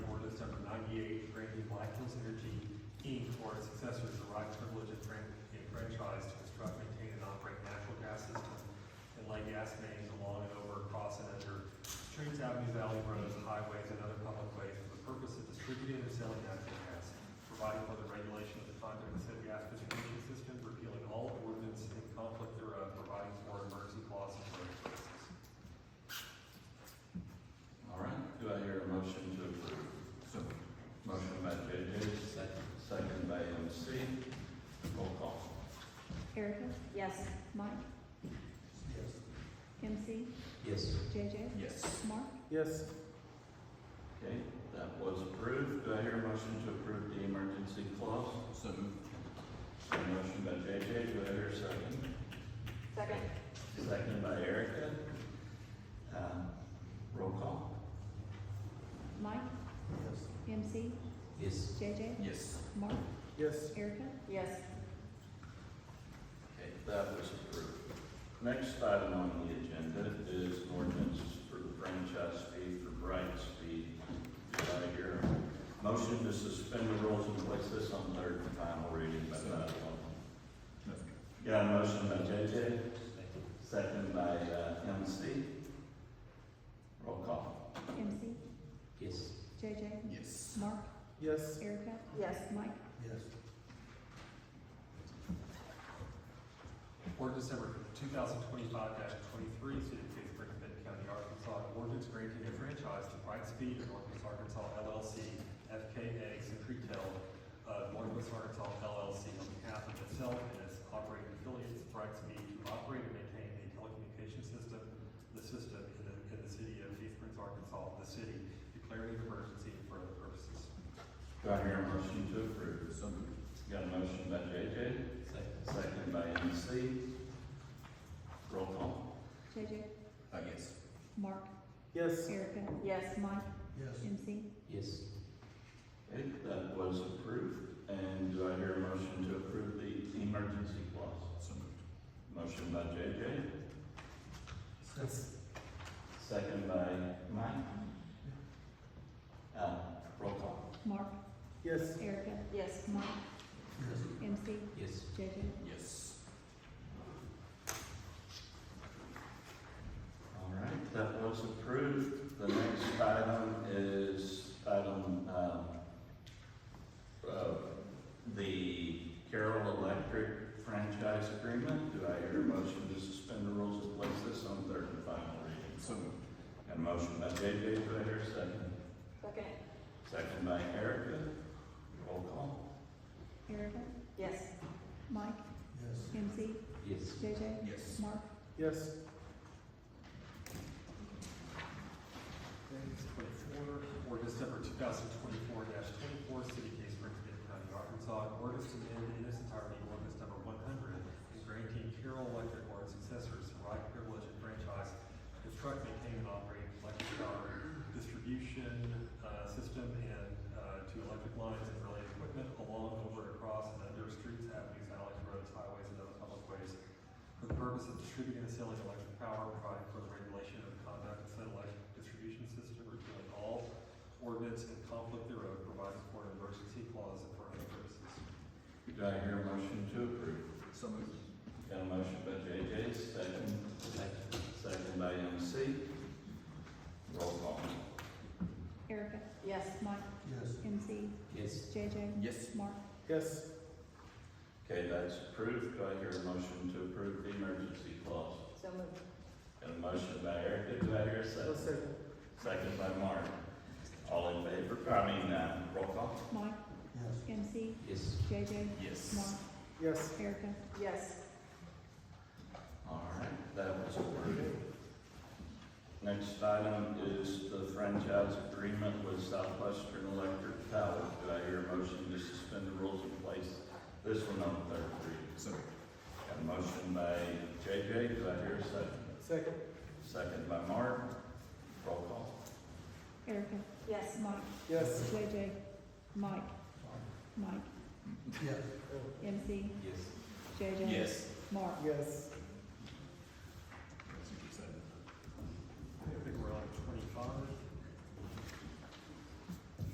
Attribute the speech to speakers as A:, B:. A: or its successors the right, privilege, and fran- and franchise to construct, maintain, and operate natural gas systems and lay gas mains along and over, across, and under streets, avenues, alley roads, highways, and other public ways for the purpose of distributing and selling natural gas, providing for the regulation of the conduct of said gas distribution system, repealing all ordinance in conflict thereof, providing for emergency clauses and other purposes.
B: All right, do I hear a motion to approve? So. Motion by JJ, second, second by MC. Roll call.
C: Erica,
D: Yes.
C: Mike,
A: Yes.
C: MC,
B: Yes.
C: JJ,
B: Yes.
C: Mark,
E: Yes.
B: Okay, that was approved. Do I hear a motion to approve the emergency clause? So Motion by JJ, do I hear a second?
D: Second?
B: Second by Erica. Um, Roll call.
C: Mike,
E: Yes.
C: MC,
B: Yes.
C: JJ,
B: Yes.
C: Mark,
E: Yes.
C: Erica,
D: Yes.
B: Okay, that was approved. Next item on the agenda is an ordinance for the franchise fee for Bright Speed. Do I hear a motion to suspend the rules and place this on third and final reading by title only? Got a motion by JJ, second by uh, MC. Roll call.
C: MC,
B: Yes.
C: JJ,
B: Yes.
C: Mark,
E: Yes.
C: Erica,
D: Yes.
C: Mike,
E: Yes.
A: Ordinance number two thousand twenty-five twenty-three, City of Kingsbury, Benton County, Arkansas, an ordinance granting a franchise to Brightspeed of Northwest Arkansas LLC, FKA Secretel, uh, Northwest Arkansas LLC on behalf of itself and its operating affiliates, Brightspeed, to operate and maintain a telecommunications system, the system in the, in the city of Kingsbury, Arkansas, the city declaring an emergency for other purposes.
B: Do I hear a motion to approve? So Got a motion by JJ, second by MC. Roll call.
C: JJ,
B: Uh, yes.
C: Mark,
E: Yes.
C: Erica,
D: Yes.
C: Mike,
E: Yes.
C: MC,
B: Yes. Okay, that was approved, and do I hear a motion to approve the emergency clause? So moved. Motion by JJ,
E: Yes.
B: second by Mike. Uh, roll call.
C: Mark,
E: Yes.
C: Erica,
D: Yes.
C: Mike, MC,
B: Yes.
C: JJ,
B: Yes. All right, that was approved. The next item is item, um, uh, the Carroll Electric franchise agreement. Do I hear a motion to suspend the rules and place this on third and final reading? So Got a motion by JJ, do I hear a second?
D: Second?
B: Second by Erica. Roll call.
C: Erica,
D: Yes.
C: Mike,
E: Yes.
C: MC,
B: Yes.
C: JJ,
B: Yes.
C: Mark,
E: Yes.
A: Ordinance twenty-four, ordinance number two thousand twenty-four twenty-four, City of Case Springs, Benton County, Arkansas, an ordinance to amend in its entirety ordinance number one hundred and granting Carroll Electric or its successors the right privilege and franchise to construct, maintain, and operate electric power distribution, uh, system and, uh, to electric lines and related equipment along, over, across, and under streets, avenues, alleys, roads, highways, and other public ways for the purpose of distributing and selling electric power, providing for the regulation of the conduct of said electric distribution system, repealing all ordinance in conflict thereof, providing for an emergency clause and for other purposes.
B: Do I hear a motion to approve? So moved. Got a motion by JJ, second. Second by MC. Roll call.
C: Erica,
D: Yes.
C: Mike,
E: Yes.
C: MC,
B: Yes.
C: JJ,
B: Yes.
C: Mark,
E: Yes.
B: Okay, that's approved. Do I hear a motion to approve the emergency clause?
D: So moved.
B: Got a motion by Erica, do I hear a second?
E: I'll second.
B: Second by Mark. All in favor, I mean, uh, roll call?
C: Mike,
E: Yes.
C: MC,
B: Yes.
C: JJ,
B: Yes.
C: Mark,
E: Yes.
C: Erica,
D: Yes.
B: All right, that was approved. Next item is the franchise agreement with Southwestern Electric Power. Do I hear a motion to suspend the rules and place this one on third reading? So. Got a motion by JJ, do I hear a second?
E: Second.
B: Second by Mark, roll call.
C: Erica,
D: Yes.
C: Mike,
E: Yes.
C: JJ, Mike, Mike,
E: Yes.
C: MC,
B: Yes.
C: JJ, Mark,
E: Yes.